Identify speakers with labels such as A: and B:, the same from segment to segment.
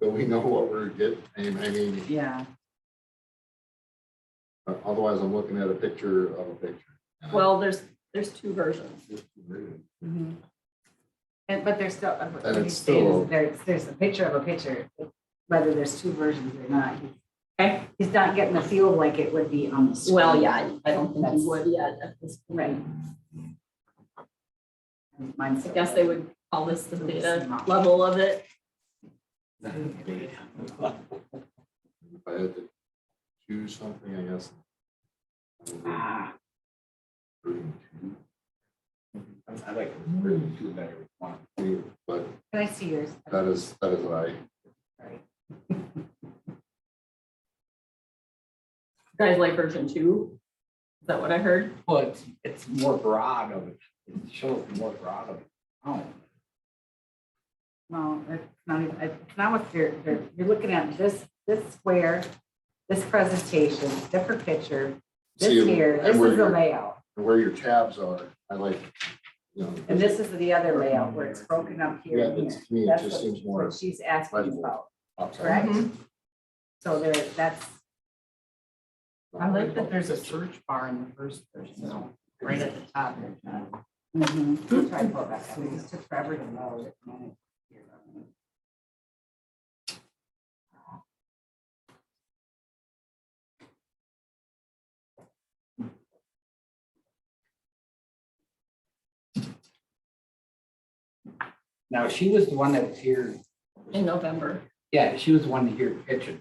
A: so we know what we're getting. I mean,
B: Yeah,
A: otherwise I'm looking at a picture of a picture.
C: Well, there's, there's two versions. Mm-hmm.
B: and, but there's still, uh, what
A: And
B: he's
A: it's
B: saying
A: still-
B: is there's, there's a picture of a picture, whether there's two versions or not.
C: Okay.
B: He's not getting the feel like it would be on the screen.
C: Well, yeah, I don't think
B: That's-
C: you would yet at this
B: Right.
C: point.
B: Mine's.
C: I guess they would call this the
B: It's
C: data
B: not.
C: level of it.
A: If I had to choose something, I guess. I would do
D: Ah,
A: version two,
D: I like version two better. than one.
A: too, But
B: Can I see yours?
A: that is, that is what I,
B: Sorry.
C: You Guys like version two? Is that what I heard?
D: Well, it's, it's more broad of it, it shows more broad of it. Oh,
B: No, it's not even, it's not what you're, you're, you're looking at this, this square, this presentation, different picture, this
A: See,
B: here,
A: and
B: this
A: where
B: is the
A: your-
B: layout.
A: where your tabs are, I like, you know.
B: And this is the other layout where it's broken up here
A: Yeah,
B: and here.
A: it's, to me, it
B: That's
A: just
B: what-
A: seems more.
B: what She's asking
A: legible.
B: about,
A: outside.
B: correct?
C: Mm-hmm.
B: So there, that's,
E: I like that there's a search bar in the first person, right at the top. there, John.
B: mhm. Try and pull it back up. It just took forever to load.
D: now she was the one that was here,
C: In November.
D: yeah, she was the one here pitching,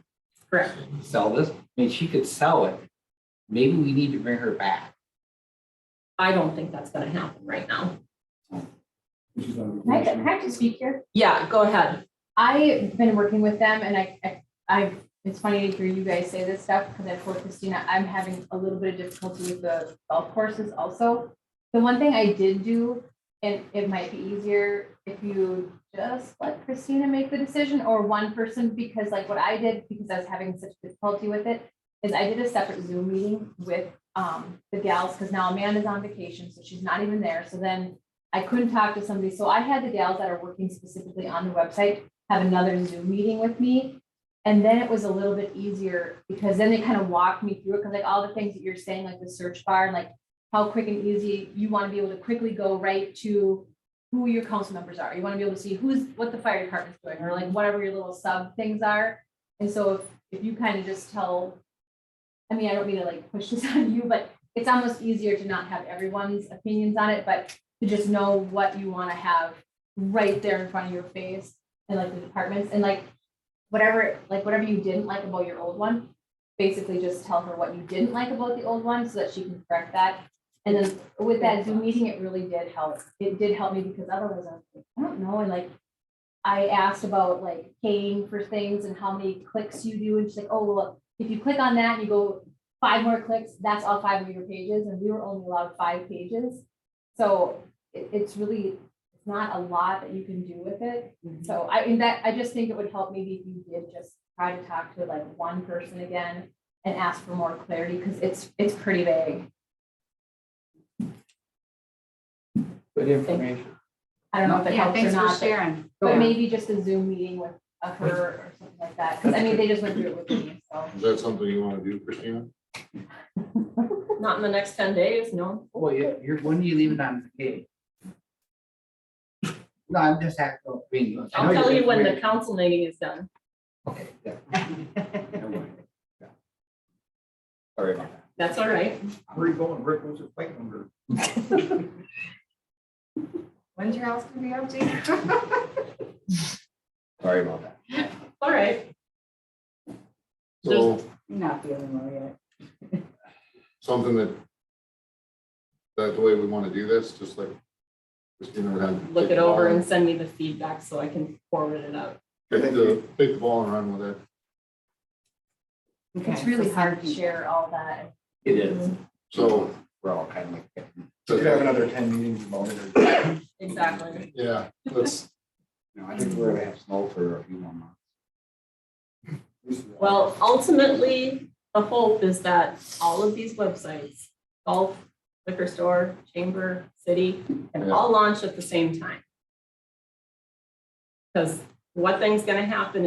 C: Correct.
D: sell this, I mean, she could sell it. Maybe we need to bring her back.
C: I don't think that's gonna happen right now.
F: Can I, can I just speak here?
C: Yeah, go ahead.
F: I've been working with them and I, I, I've- it's funny to hear you guys say this stuff because I told Christina, I'm having a little bit of difficulty with the golf courses also. The one thing I did do, and it might be easier if you just let Christina make the decision or one person, because like what I did, because I was having such difficulty with it, is I did a separate Zoom meeting with, um, the gals, because now Amanda's on vacation, so she's not even there. So then I couldn't talk to somebody, so I had the gals that are working specifically on the website have another Zoom meeting with me. And then it was a little bit easier because then they kind of walked me through it, because like all the things that you're saying, like the search bar, and like how quick and easy you want to be able to quickly go right to who your council members are. You want to be able to see who's, what the fire department's doing, or like whatever your little sub things are. And so if, if you kind of just tell, I mean, I don't mean to like push this on you, but it's almost easier to not have everyone's opinions on it, but to just know what you want to have right there in front of your face and like the departments and like whatever, like whatever you didn't like about your old one, basically just tell her what you didn't like about the old one so that she can correct that. And then with that Zoom meeting, it really did help. It did help me because otherwise I was like, I don't know, and like I asked about like paying for things and how many clicks you do and she's like, oh, well, if you click on that and you go five more clicks, that's all five of your pages and we were only allowed five pages. So it, it's really, it's not a lot that you can do with it.
B: Mm-hmm.
F: So I, and that, I just think it would help maybe if you did just try to talk to like one person again and ask for more clarity, because it's, it's pretty vague.
D: Good information.
F: I don't know if it
B: Yeah,
F: helps or
B: thanks for
F: not, but-
B: sharing.
F: but maybe just a Zoom meeting with a her or something like that, because I mean, they just went through it with me, so.
A: Is that something you want to do, Christina?
C: Not in the next ten days, no.
D: Well, you- you're, when are you leaving on vacation? No, I'm just asking. I mean, I know
C: I'll tell
D: you're-
C: you when the council meeting is done.
D: Okay, yeah. Never mind. Yeah. Sorry about that.
C: That's all right.
G: Where you going, Rick? What's your plate number?
B: When's your house gonna be up, Jake?
D: Sorry about that.
C: All right.
A: So
B: Not feeling well yet.
A: something that, that the way we want to do this, just like Christina would have.
C: Look it over and send me the feedback so I can forward it out.
A: Take the, take the ball and run with it.
B: It's really hard to share.
F: Share all that.
D: It is.
A: So,
D: We're all kind of like.
G: We could have another ten meetings about it.
C: Exactly.
A: yeah, let's,
D: No, I think we're gonna have snow for a few more months.
C: Well, ultimately, the hope is that all of these websites, golf, liquor store, chamber, city, can all launch at the same time. Because what thing's gonna happen